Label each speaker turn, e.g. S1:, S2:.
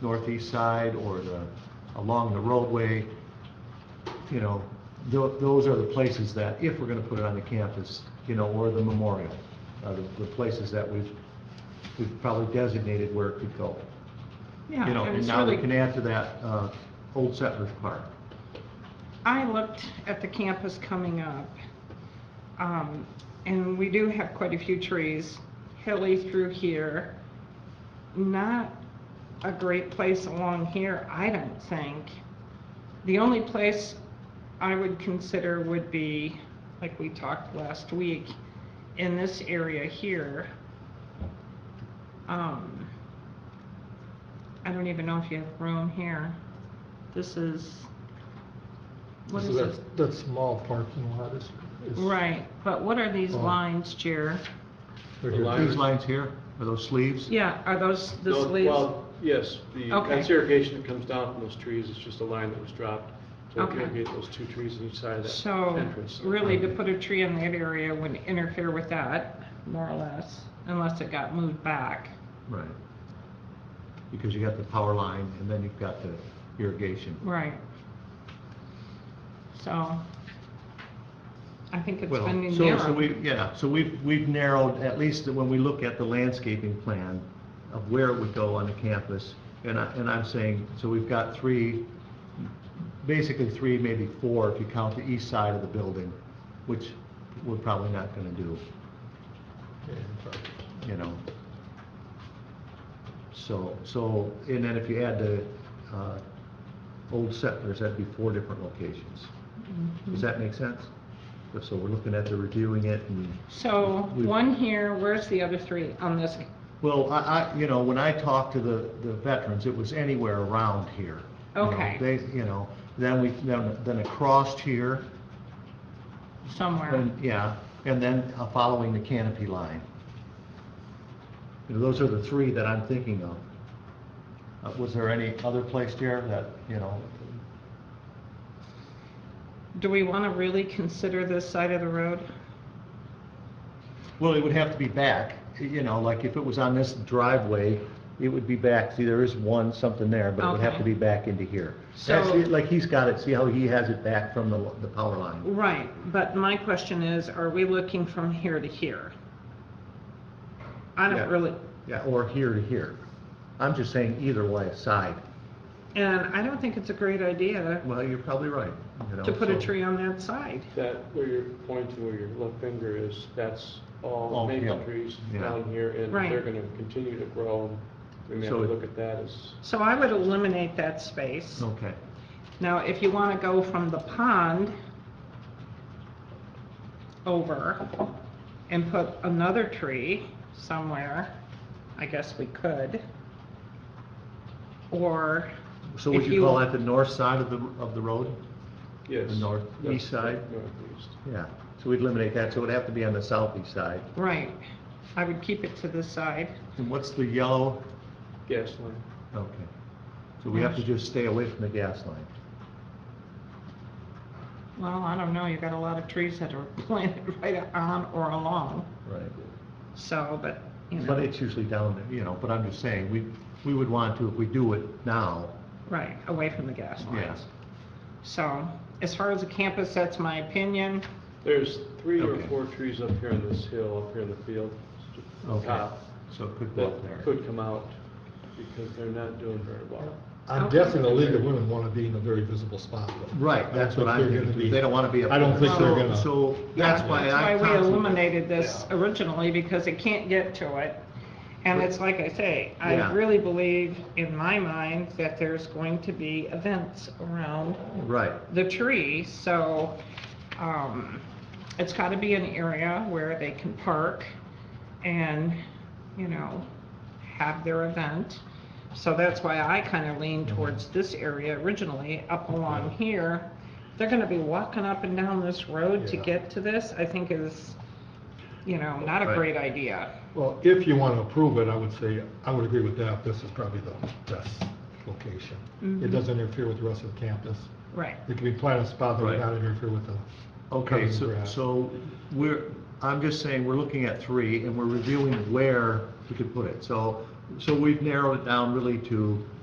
S1: northeast side or the, along the roadway, you know, tho- those are the places that, if we're gonna put it on the campus, you know, or the memorial, uh, the, the places that we've, we've probably designated where it could go.
S2: Yeah,
S1: You know,
S2: and
S1: and
S2: it's
S1: now we
S2: really,
S1: can add to that, uh, Old Settlers Park.
S2: I looked at the campus coming up, um, and we do have quite a few trees, hilly through here. Not a great place along here, I don't think. The only place I would consider would be, like we talked last week, in this area here. Um, I don't even know if you have room here. This is, what
S3: So
S2: is
S3: That
S2: this?
S3: that small parking lot is. is-
S2: Right, but what are these
S3: Oh.
S2: lines, Jer?
S3: they're
S4: The
S3: here.
S4: line-
S1: These lines here, are those sleeves?
S2: Yeah, are those the
S4: No,
S2: sleeves?
S4: Well, yes, the,
S2: Okay.
S4: that's irrigation that comes down from those trees, it's just a line that was dropped to
S2: Okay.
S4: irrigate those two trees on each side of that
S2: So,
S4: entrance.
S2: really, to put a tree in that area would interfere with that, more or less, unless it got moved back.
S1: Right. Because you got the power line and then you've got the irrigation.
S2: Right. So, I think it's
S1: Well,
S2: been
S1: so- So
S2: narrowed.
S1: we, yeah, so we've, we've narrowed, at least when we look at the landscaping plan of where it would go on the campus. And I, and I'm saying, so we've got three, basically three, maybe four, if you count the east side of the building, which we're probably not gonna do, you know? So, so, and then if you add the, uh, old settlers, that'd be four different locations.
S2: Mm-hmm.
S1: Does that make sense? So we're looking at the reviewing it and
S2: So,
S1: we-
S2: one here, where's the other three on this?
S1: Well, I, I, you know, when I talked to the, the veterans, it was anywhere around here. You know,
S2: Okay.
S1: They, you know, then we, then, then across here,
S2: Somewhere.
S1: and, yeah, and then uh, following the canopy line. You know, Those are the three that I'm thinking of. Uh, Was there any other place there that, you know,
S2: Do we want to really consider this side of the road?
S1: well, it would have to be back, you know, like if it was on this driveway, it would be back, see, there is one, something there, but it would have to
S2: Okay.
S1: be back into here.
S2: So-
S1: That's, it, like he's got it, see how he has it back from the, the power line?
S2: Right, but my question is, are we looking from here to here? I
S1: Yeah.
S2: don't really,
S1: Yeah, or here to here. I'm just saying either way, side.
S2: and I don't think it's a great idea
S1: Well, you're probably right, you know.
S2: to put a
S1: so-
S2: tree on that side.
S4: That, where you're pointing, where your left finger is, that's all
S1: All
S4: maple
S1: hill,
S4: trees
S1: yeah.
S4: down here, and
S2: Right.
S4: they're gonna continue to grow. We may have
S1: So
S4: to
S1: it-
S4: look at that as,
S2: So I would eliminate that space.
S1: Okay,
S2: Now, if you want to go from the pond over and put another tree somewhere, I guess we could. Or,
S1: so would
S2: If
S1: you
S2: you-
S1: call that the north side of the, of the road?
S4: yes.
S1: The north-
S4: that's
S1: east side?
S4: Northeast.
S1: Yeah, so we'd eliminate that, so it'd have to be on the southeast side.
S2: right, I would keep it to this side.
S1: And what's the yellow?
S4: Gas line.
S1: Okay. So we have to just stay away from the gas line.
S2: Well, I don't know, you've got a lot of trees that are planted right on or along,
S1: Right.
S2: so, but, you
S1: But
S2: know,
S1: it's usually down, there, you know, but I'm just saying, we, we would want to, if we do it now,
S2: right, away from the gas lines.
S1: yes.
S2: So, as far as the campus, that's my opinion.
S4: There's three or
S1: Okay.
S4: four trees up here on this hill, up here in the field,
S1: Okay.
S4: top,
S1: So it could go up
S4: that
S1: there.
S4: Uh, could come out, because they're not doing very well.
S3: I'm guessing the League of Women want to be in a very visible spot. though.
S1: Right, that's what
S3: I
S1: I'm
S3: don't think they're
S1: thinking,
S3: gonna
S1: too. they don't want to be up.
S3: I don't think
S1: there.
S3: they're gonna-
S1: So so that's why I.
S2: Uh, That's why we
S1: constantly-
S2: eliminated this
S4: Yeah.
S2: originally, because they can't get to it. And it's like I say, I
S1: Yeah.
S2: really believe, in my mind, that there's going to be events around
S1: Right,
S2: the tree, so, um, it's gotta be an area where they can park and, you know, have their event. So that's why I kinda leaned towards this area originally, up along here. They're gonna be walking up and down this road to
S3: Yeah.
S2: get to this, I think is, you know, not a
S1: Right.
S2: great idea.
S3: Well, if you want to approve it, I would say, I would agree with that. This is probably the best location. It
S2: Mhm.
S3: doesn't interfere with the rest of the campus.
S2: Right.
S3: It can be planted a spot that
S1: Right.
S3: would not interfere with the,
S1: okay,
S3: Covering
S1: so,
S3: grass.
S1: so we're, I'm just saying, we're looking at three, and we're reviewing where we could put it. So, so we've narrowed it down really to